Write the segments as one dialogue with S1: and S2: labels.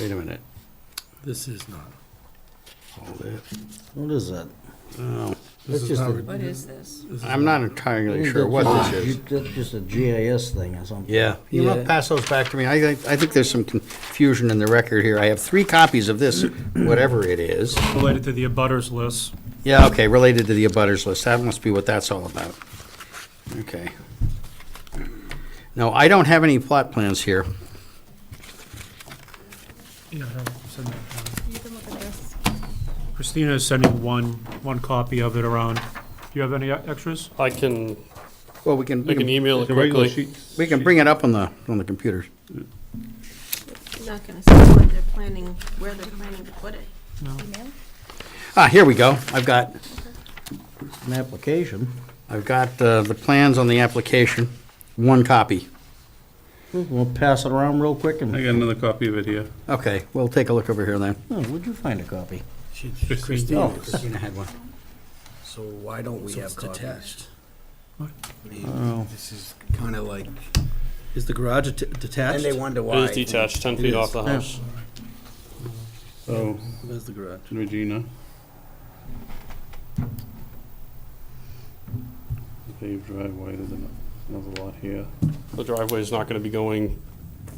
S1: Wait a minute.
S2: This is not.
S1: Hold it.
S3: What is that?
S1: Oh,
S2: This
S3: That's
S2: is
S3: just
S2: not
S3: a-
S2: re-
S4: What is this?
S2: this is
S1: I'm not entirely sure what
S3: That's
S1: this
S3: just-
S1: is.
S3: you- That's just a GIS thing or something.
S1: Yeah, you want
S2: Yeah.
S1: to pass those back to me? I think, I think there's some confusion in the record here. I have three copies of this, whatever it is.
S5: related to the abutters list.
S1: Yeah, okay, related to the abutters list. That must be what that's all about. Okay. No, I don't have any plot plans here.
S5: Yeah, I have- send that down.
S4: You can look at this.
S5: Christina is sending one, one copy of it around. Do you have any e-, extras?
S6: I can,
S1: Well, we can,
S6: I
S1: we
S6: can
S1: can,
S6: email it quickly.
S1: we can bring it up on the, on the computer.
S4: I'm not gonna see what they're planning, where they're planning to put it.
S1: Ah, here we go. I've got,
S3: An application.
S1: I've got uh, the plans on the application, one copy.
S3: We'll pass it around real quick and,
S7: I got another copy of it here.
S1: Okay, we'll take a look over here then.
S3: oh, where'd you find a copy?
S2: She-
S7: This is-
S2: Christine,
S1: Christina had one.
S2: so why don't we
S8: So
S2: have
S8: it's
S2: copies?
S8: detached.
S3: Oh.
S8: This is kind of like,
S3: Is the garage
S8: and
S3: detached?
S8: they wonder
S6: It
S8: why.
S6: is detached, 10 feet
S8: It
S6: off
S8: is.
S6: the house.
S7: So,
S3: There's the garage.
S7: Regina. Paved driveway, there's ano- another lot here.
S6: The driveway is not going to be going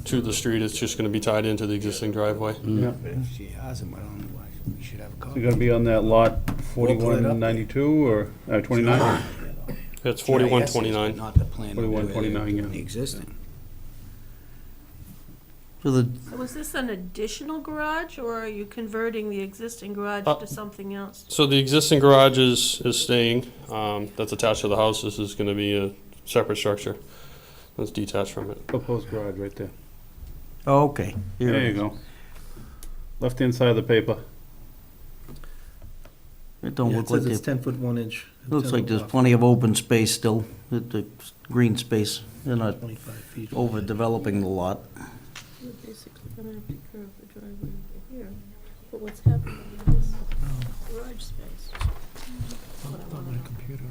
S6: to the street, it's just going to be tied into the existing driveway.
S7: Yeah.
S8: But if she has them, I don't know why we should have a
S7: So
S8: copy.
S7: you're gonna be on that lot
S8: We'll put it
S7: forty-one
S8: up there.
S7: ninety-two or, uh, twenty-nine?
S6: It's
S8: GIS is, but
S6: 4129.
S8: Not the plan. of
S7: 4129,
S8: where they're
S7: yeah.
S8: Existing.
S3: So the,
S4: So is this an additional garage, or are you converting the existing garage
S6: Uh,
S4: to something else?
S6: So the existing garage is, is staying, um, that's attached to the house, this is going to be a separate structure. That's detached from it.
S7: Proposed garage right there.
S3: oh, okay. Here
S7: There
S3: it
S7: you
S3: is.
S7: go. Left-hand side of the paper.
S3: It don't
S8: Yeah,
S3: look like,
S8: it's
S3: it
S8: ten foot one inch.
S3: looks like there's plenty of open space still, the, the green space. They're not overdeveloping the lot.
S4: You're basically gonna have to curve the driveway over here, but what's happening in this garage space?
S5: on my computer.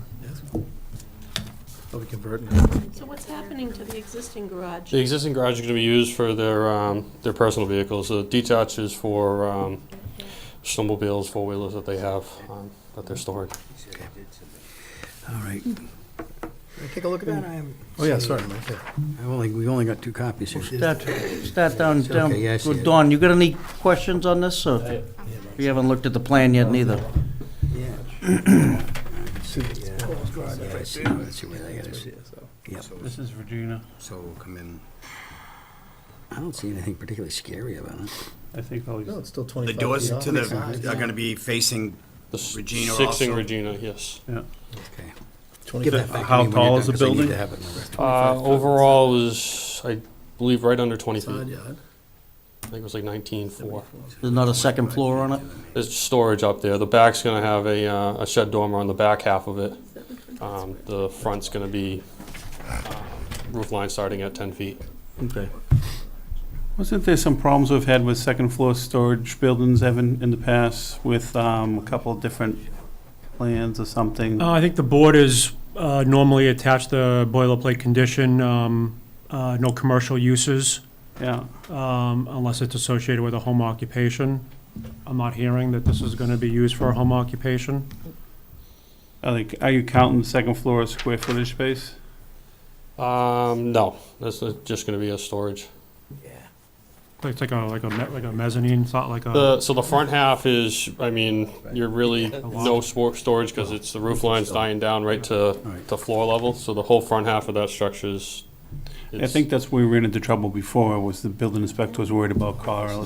S8: Are we converting?
S4: So what's happening to the existing garage?
S6: The existing garage is going to be used for their, um, their personal vehicles. The detached is for um, snowmobiles, four-wheelers that they have, um, that they're storing.
S1: All right. Take a look at that.
S8: Oh, yeah, sorry, right there.
S1: I've only, we've only got two copies here.
S3: Start, start down, down.
S1: Okay, yeah, I see it.
S3: Dawn, you got any questions on this, or? You haven't looked at the plan yet neither?
S1: Yeah, I see, I see where that is. Yep.
S7: This is Regina.
S8: So we'll come in.
S1: I don't see anything particularly scary about it.
S7: I think all these,
S2: still
S8: The
S2: twenty-five
S8: doors to the, are gonna be facing,
S6: The s-
S8: Regina
S6: Sixing
S8: also?
S6: Regina, yes.
S1: Okay.
S2: Twenty
S1: Give that back
S7: How
S1: to me when you're
S7: tall
S1: done,
S7: is the
S1: 'cause I need to
S7: building?
S1: have it in the record.
S6: Uh, overall is, I believe, right under 20 feet.
S2: Side
S6: I
S2: yard.
S6: think it was like 19.4.
S3: There's not a second floor on it?
S6: There's storage up there. The back's going to have a, uh, a shed dormer on the back half of it. Um, the front's going to be um, roof line starting at 10 feet.
S3: Okay.
S7: wasn't there some problems we've had with second-floor storage buildings, Evan, in the past with, um, a couple of different plans or something?
S5: Uh, I think the board is uh, normally attached the boilerplate condition, um, uh, no commercial uses,
S7: Yeah.
S5: um, unless it's associated with a home occupation. I'm not hearing that this is going to be used for a home occupation.
S7: Are they, are you counting the second floor as square footage space?
S6: Um, no, that's uh, just going to be a storage.
S5: It's like a, like a, me- like a mezzanine, it's not like a,
S6: The, so the front half is, I mean, you're really no spor- storage because it's the roof line's dying down right to, to floor level. So the whole front half of that structure is.
S7: I think that's where we ran into trouble before, was the building inspector was worried about car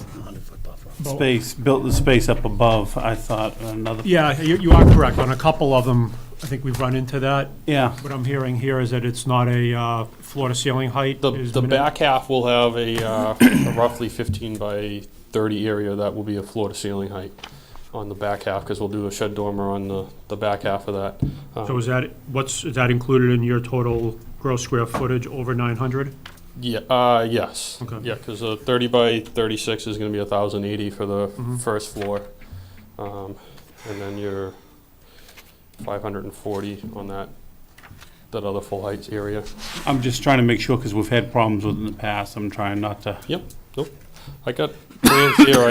S7: space, built the space up above, I thought, another,
S5: yeah, you, you are correct. On a couple of them, I think we've run into that.
S7: yeah.
S5: What I'm hearing here is that it's not a uh, floor-to-ceiling height.
S6: The,
S5: is
S6: the
S5: minim-
S6: back half will have a uh, a roughly 15 by 30 area that will be a floor to ceiling height on the back half, because we'll do a shed dormer on the, the back half of that. Um,
S5: So is that, what's, is that included in your total gross square footage over 900?
S6: Yeah, uh, yes.
S5: Okay.
S6: Yeah, because a 30 by 36 is going to be 1,080 for the first floor. Um, And then your 540 on that, that other full heights area.
S7: I'm just trying to make sure, because we've had problems with it in the past, I'm trying not to.
S6: Yep, nope. I got plans here,